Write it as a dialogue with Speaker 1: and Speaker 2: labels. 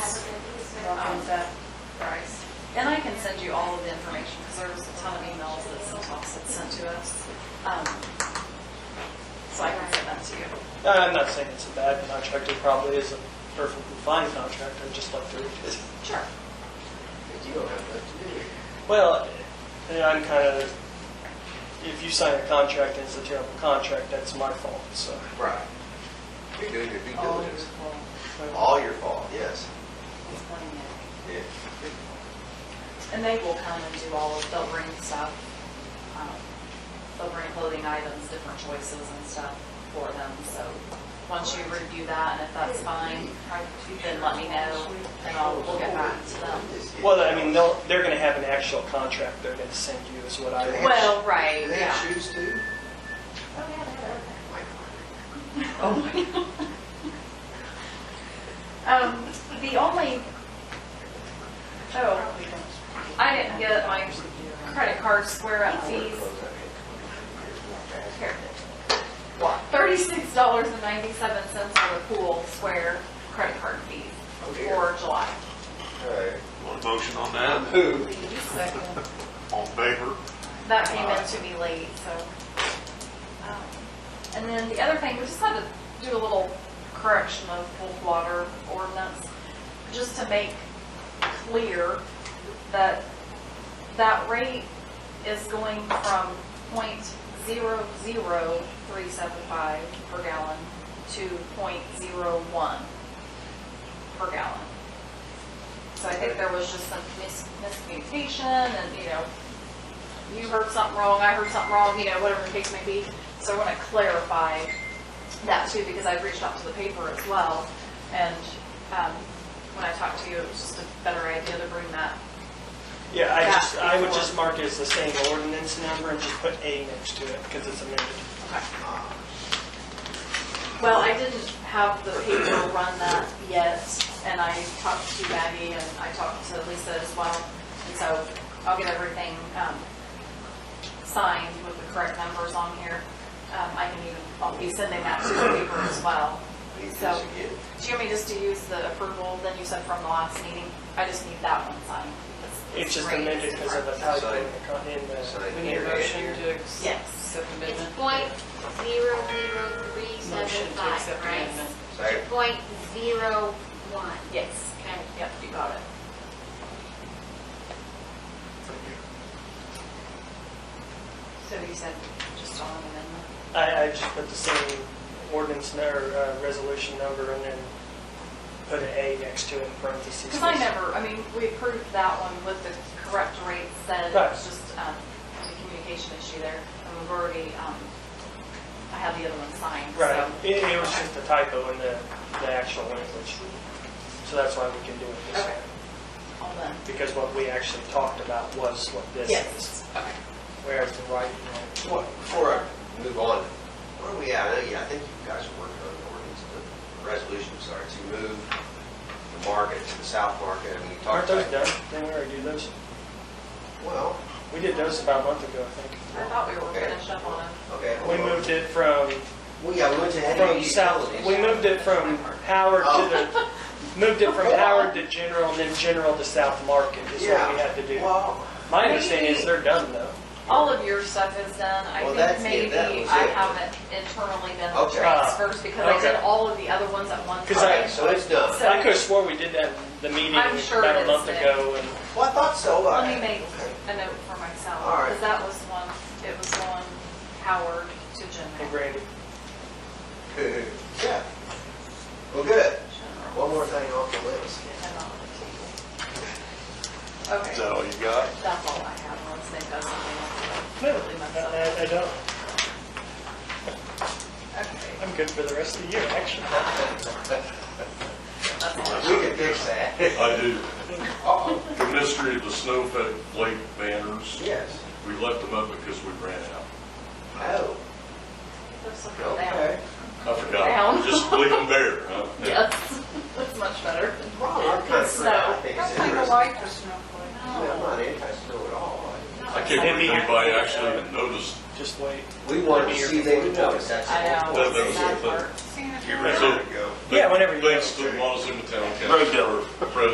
Speaker 1: Um,
Speaker 2: I'll that price.
Speaker 1: And I can send you all of the information, because there was a ton of emails that Centos had sent to us. Um, So I can send that to you.
Speaker 3: No, I'm not saying it's a bad contract, it probably is a perfectly fine contract, I'd just like to read it.
Speaker 1: Sure.
Speaker 4: You don't have that to do.
Speaker 3: Well, and I'm kind of, if you sign a contract and it's a terrible contract, that's my fault, so.
Speaker 4: Right. You're doing your due
Speaker 2: All your
Speaker 4: diligence.
Speaker 2: fault.
Speaker 4: All your fault, yes.
Speaker 2: Explain it.
Speaker 4: Yeah.
Speaker 1: And they will come and do all of, they'll bring stuff. um, They'll bring clothing items, different choices and stuff for them. So once you review that, and if that's fine, then let me know, and I'll, we'll get back to them.
Speaker 3: Well, I mean, they'll, they're going to have an actual contract they're going to send you is what I
Speaker 4: Do they
Speaker 3: want.
Speaker 4: have-
Speaker 1: Well, right,
Speaker 4: Do they have
Speaker 1: yeah.
Speaker 4: shoes too?
Speaker 1: Oh, yeah, they have everything.
Speaker 4: Like,
Speaker 1: Um, the only, oh, I didn't get my credit card square up fees.
Speaker 4: clothes, I mean,
Speaker 1: Here. Thirty-six dollars and ninety-seven cents for the pool square credit card fees for July.
Speaker 4: All right.
Speaker 5: Want a motion on that?
Speaker 4: Who?
Speaker 5: On favor?
Speaker 1: That came in to me late, so. um, And then the other thing, we just had to do a little correction of cold water ordinance, just to make clear that that rate is going from point zero zero three seven five per gallon to point zero one per gallon. So I think there was just some mis- miscommunication and, you know, you heard something wrong, I heard something wrong, you know, whatever the case may be. So I want to clarify that too, because I've reached out to the paper as well. And um, when I talked to you, it was just a better idea to bring that.
Speaker 3: Yeah, I
Speaker 1: Yeah,
Speaker 3: just, I would
Speaker 1: before.
Speaker 3: just mark it as the same ordinance number and just put A next to it because it's amended.
Speaker 1: Well, I didn't have the paper run that yet, and I talked to Maggie and I talked to Lisa as well. And so I'll get everything um, signed with the correct numbers on here. Um, I can even, I'll be sending that to the paper as well.
Speaker 4: We need
Speaker 1: So-
Speaker 4: to get-
Speaker 1: Do you want me just to use the approval then you said from the last meeting? I just need that one signed.
Speaker 3: It's just
Speaker 1: Rate is
Speaker 3: amended because of
Speaker 1: different.
Speaker 3: the typo in the, con- in
Speaker 4: Sorry.
Speaker 3: the,
Speaker 2: We need a motion to
Speaker 1: Yes.
Speaker 2: accept the
Speaker 6: It's
Speaker 2: amendment.
Speaker 6: point zero zero three
Speaker 2: Motion
Speaker 6: seven
Speaker 2: to
Speaker 6: five,
Speaker 2: accept the
Speaker 6: right?
Speaker 2: amendment.
Speaker 4: Second.
Speaker 6: Point zero one.
Speaker 1: Yes.
Speaker 6: Okay.
Speaker 1: Yep, you got it. So you said just on amendment?
Speaker 3: I, I just put the same ordinance number, uh, resolution number and then put an A next to it in parentheses.
Speaker 1: Because I never, I mean, we approved that one with the correct rates, said it
Speaker 3: Right.
Speaker 1: was just um, a communication issue there. And we've already, um, I have the other one signed, so.
Speaker 3: Right, it, it was just a typo in the, the actual language. So that's why we can do it this way.
Speaker 1: Okay. All done.
Speaker 3: Because what we actually talked about was what this is.
Speaker 1: Yes. Okay.
Speaker 3: Whereas the right,
Speaker 4: What, before I move on, where are we at? I know, yeah, I think you guys are working on the ordinance, the resolution, sorry, to move the market to the south market, and we
Speaker 3: aren't
Speaker 4: talked
Speaker 3: those
Speaker 4: about.
Speaker 3: done? Didn't we already do those?
Speaker 4: Well,
Speaker 3: We did those about a month ago, I think.
Speaker 1: I thought we were
Speaker 4: okay.
Speaker 1: finished up on them.
Speaker 4: Okay. hold
Speaker 3: We
Speaker 4: on.
Speaker 3: moved it from,
Speaker 4: Well, yeah, we went to heavy
Speaker 3: from south,
Speaker 4: utilities.
Speaker 3: we moved it from Howard to the, moved it from Howard to General and then General to South Market is what we had to do.
Speaker 4: Well,
Speaker 3: My understanding is they're done though.
Speaker 1: All of your stuff is done. I
Speaker 4: Well,
Speaker 1: think
Speaker 4: that's it.
Speaker 1: maybe
Speaker 4: That was
Speaker 1: I
Speaker 4: it.
Speaker 1: haven't internally done the
Speaker 4: Okay.
Speaker 1: transfers because I did
Speaker 3: Okay.
Speaker 1: all of the other ones at one
Speaker 3: 'Cause I-
Speaker 4: okay,
Speaker 1: time.
Speaker 4: so it's done.
Speaker 1: So-
Speaker 3: I could have swore we did that in the meeting
Speaker 1: I'm sure
Speaker 3: about
Speaker 1: it
Speaker 3: a month
Speaker 1: is.
Speaker 3: ago and
Speaker 4: Well, I thought so. but-
Speaker 1: Let me make
Speaker 4: Okay.
Speaker 1: a note for myself,
Speaker 4: All right.
Speaker 1: because that was one, it was one Howard to
Speaker 3: Hey,
Speaker 1: General.
Speaker 3: Brandy,
Speaker 4: Good. Yeah. Well, good.
Speaker 1: General.
Speaker 4: One more thing off the list.
Speaker 1: And not the table.
Speaker 5: Is
Speaker 1: Okay,
Speaker 5: that all you got?
Speaker 1: that's all I have, unless they've got something else.
Speaker 3: No,
Speaker 1: Really messed
Speaker 3: I,
Speaker 1: up.
Speaker 3: I- I don't.
Speaker 1: Okay,
Speaker 3: I'm good for the rest of the year, actually.
Speaker 1: that's all.
Speaker 4: We can fix that.
Speaker 7: I do.
Speaker 4: Oh,
Speaker 7: The mystery of the snowflake lake banners,
Speaker 4: yes.
Speaker 7: we left them up because we ran out.
Speaker 4: Oh,
Speaker 1: Those look down.
Speaker 4: okay.
Speaker 7: I
Speaker 1: Down.
Speaker 7: forgot. Just leave them there, huh?
Speaker 1: Yes, that's much better.
Speaker 4: Well, I'm kind of
Speaker 1: So-
Speaker 4: forgot. I think it's
Speaker 2: I
Speaker 4: interesting.
Speaker 2: like the snowflake.
Speaker 4: I'm not anti-snow at all.
Speaker 7: I can't believe anybody actually even noticed.
Speaker 3: Just wait.
Speaker 4: We wanted to see they would notice. That's the
Speaker 1: I know.
Speaker 4: whole
Speaker 7: That- that was
Speaker 4: point.
Speaker 7: the
Speaker 1: That
Speaker 7: thing.
Speaker 1: part.
Speaker 2: See,
Speaker 7: You
Speaker 2: it's-
Speaker 7: ran out.
Speaker 4: go.
Speaker 3: Yeah, whenever you-
Speaker 7: Thanks to Wallace and the town council.
Speaker 5: dealer.